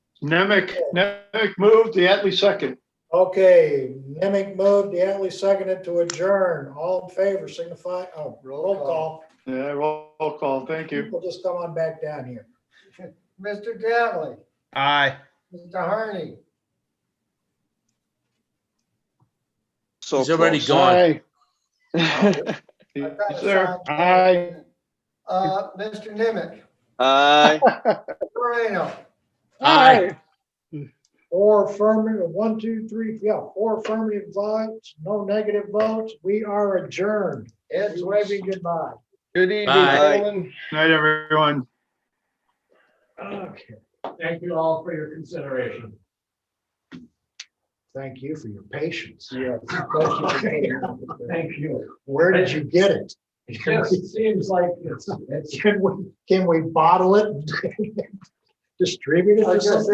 Nemec, Nemec moved, the Atlee second. Okay, Nemec moved, Diatley seconded to adjourn. All in favor, signify, oh, roll call. Yeah, roll roll call, thank you. We'll just come on back down here. Mr. Dattley, Aye. Mr. Harney, So He's already close. gone. I Yes, thought I sir. saw- Aye. uh, Mr. Nimitz, Aye. Moreno, Aye. Four affirmative, one, two, three, yeah, four affirmative votes, no negative votes. We are adjourned. Ed's waving goodbye. Good evening, Bye. gentlemen. Night, everyone. Okay, Thank you all for your consideration. thank you for your patience. Yeah, questions. Thank you. Where did you get it? It just seems like it's, it's Can we, can we bottle it? and Distribute it? I was gonna say,